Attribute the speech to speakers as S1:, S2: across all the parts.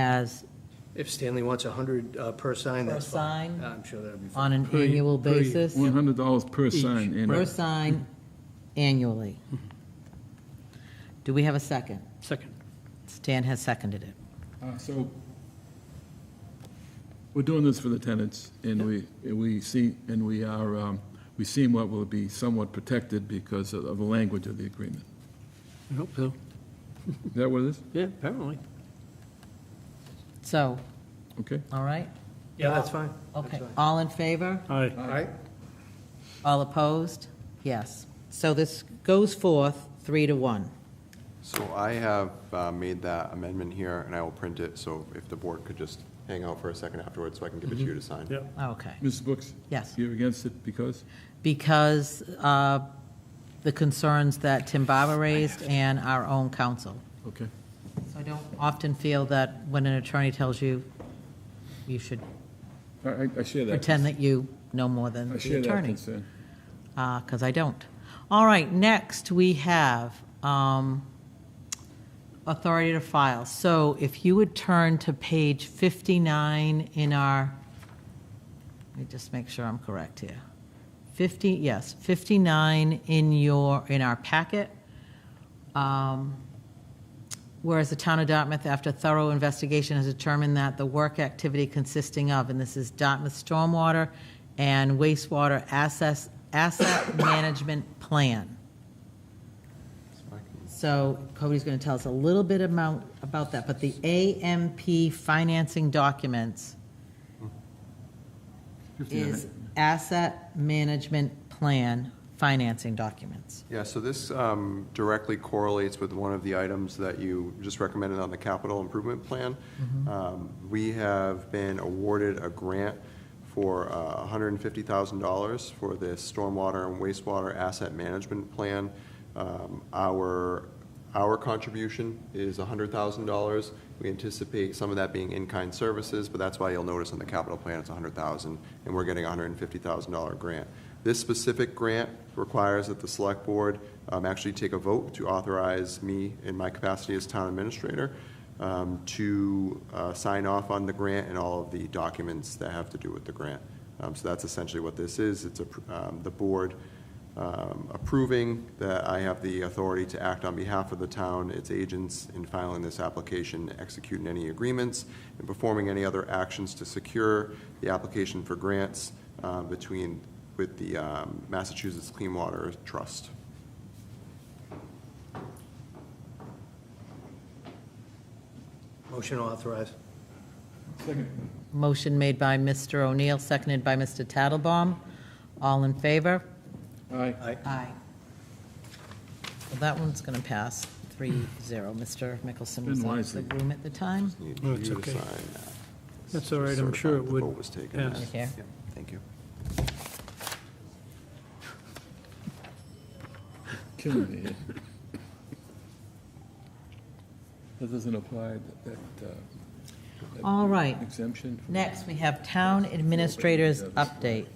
S1: as
S2: If Stanley wants 100 uh, per sign,
S1: Per
S2: that's fine.
S1: sign?
S2: I'm sure that'd be
S1: on
S2: fine.
S1: an annual basis,
S3: One hundred dollars per sign, and
S1: per sign annually. Do we have a second?
S4: Second.
S1: Stan has seconded it.
S3: Uh, so we're doing this for the tenants, and we, and we see, and we are, um, we seem what will be somewhat protected because of of the language of the agreement.
S4: I hope so.
S3: Is that what it is?
S4: Yeah, apparently.
S1: So,
S3: Okay.
S1: all right,
S2: Yeah, that's fine. That's
S1: okay.
S2: fine.
S1: All in favor?
S4: Aye.
S2: All right,
S1: All opposed? Yes. So this goes forth three to one.
S5: So I have uh, made that amendment here, and I will print it, so if the board could just hang out for a second afterwards, so I can give it to you to sign.
S4: Yep.
S1: Okay.
S3: Mrs. Brooks?
S1: Yes.
S3: You're against it because?
S1: Because uh, the concerns that Tim Barber raised and our own counsel.
S3: Okay.
S1: So I don't often feel that when an attorney tells you, you should
S3: I, I- I share that.
S1: pretend that you know more than
S3: I
S1: the
S3: share that
S1: attorney.
S3: concern.
S1: because Uh, I don't. All right, next we have um, authority to file. So if you would turn to page 59 in our, let me just make sure I'm correct here. 50, yes, 59 in your, in our packet. Um, Whereas the town of Dartmouth, after thorough investigation, has determined that the work activity consisting of, and this is Dartmouth Stormwater and Wastewater Assess, Asset Management Plan. So Cody's going to tell us a little bit about, about that, but the AMP financing documents is Asset Management Plan financing documents.
S5: Yeah, so this um, directly correlates with one of the items that you just recommended on the capital improvement plan. Um, We have been awarded a grant for uh, $150,000 for this stormwater and wastewater asset management plan. Um, Our, our contribution is $100,000. We anticipate some of that being in-kind services, but that's why you'll notice on the capital plan, it's $100,000, and we're getting a $150,000 grant. This specific grant requires that the select board um, actually take a vote to authorize me in my capacity as town administrator um, to uh, sign off on the grant and all of the documents that have to do with the grant. Um, So that's essentially what this is. It's a- um, the board um, approving that I have the authority to act on behalf of the town, its agents, in filing this application, executing any agreements, and performing any other actions to secure the application for grants uh, between, with the um, Massachusetts Clean Water Trust.
S2: motion authorized.
S1: Motion made by Mr. O'Neill, seconded by Mr. Tattlebaum. All in favor?
S3: Aye.
S2: All right,
S1: Aye. Well, that one's going to pass 3-0. Mr. Mickelson was out
S3: Been
S1: of the
S3: wisely.
S1: room at the time.
S5: Need
S4: No,
S5: you
S4: it's
S5: to
S4: okay.
S5: sign that.
S4: That's all right, I'm
S5: Certify
S4: sure
S5: that
S4: it
S5: the
S4: would.
S5: vote was taken.
S4: pass.
S1: Right here.
S5: Yeah, Thank you.
S3: Killing me here. That doesn't apply, that- that, uh, that
S1: All right.
S3: Exemption. from-
S1: Next, we have town administrators update.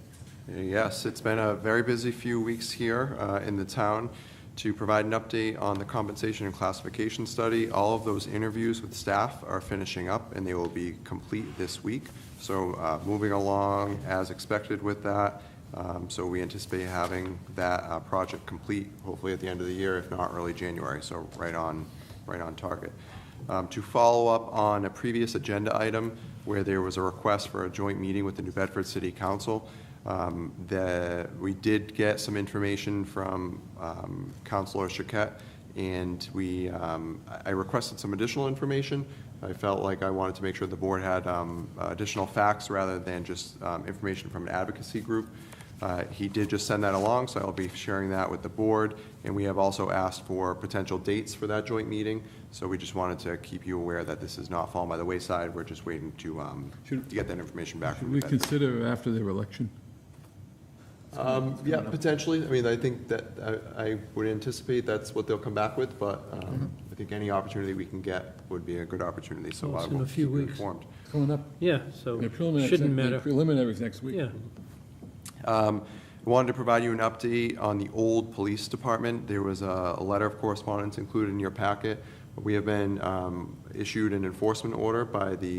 S5: Yes, it's been a very busy few weeks here uh, in the town to provide an update on the compensation and classification study. All of those interviews with staff are finishing up, and they will be complete this week. So uh, moving along as expected with that. Um, So we anticipate having that uh, project complete, hopefully at the end of the year, if not early January. So right on, right on target. Um, To follow up on a previous agenda item where there was a request for a joint meeting with the New Bedford City Council, um, the, we did get some information from um, Counselor Chiquette, and we, um, I I requested some additional information. I felt like I wanted to make sure the board had um, additional facts rather than just um, information from an advocacy group. Uh, He did just send that along, so I'll be sharing that with the board, and we have also asked for potential dates for that joint meeting, so we just wanted to keep you aware that this has not fallen by the wayside, we're just waiting to um, to
S3: Should-
S5: get that information back from
S3: Should
S5: the
S3: we
S5: vendor.
S3: consider after their election?
S5: Um, Yeah, potentially. I mean, I think that, I- I would anticipate that's what they'll come back with, but
S4: Mm-hmm.
S5: um, I think any opportunity we can get would be a good opportunity, so
S4: Well,
S5: I
S4: it's in
S5: will
S4: a
S5: keep
S4: few
S5: you
S4: weeks.
S5: informed.
S3: Coming up.
S4: Yeah, so
S3: Their preliminary-
S4: shouldn't
S3: their
S4: matter.
S3: Preliminaries next week.
S4: Yeah,
S5: Um, I Wanted to provide you an update on the old police department. There was a a letter of correspondence included in your packet. We have been um, issued an enforcement order by the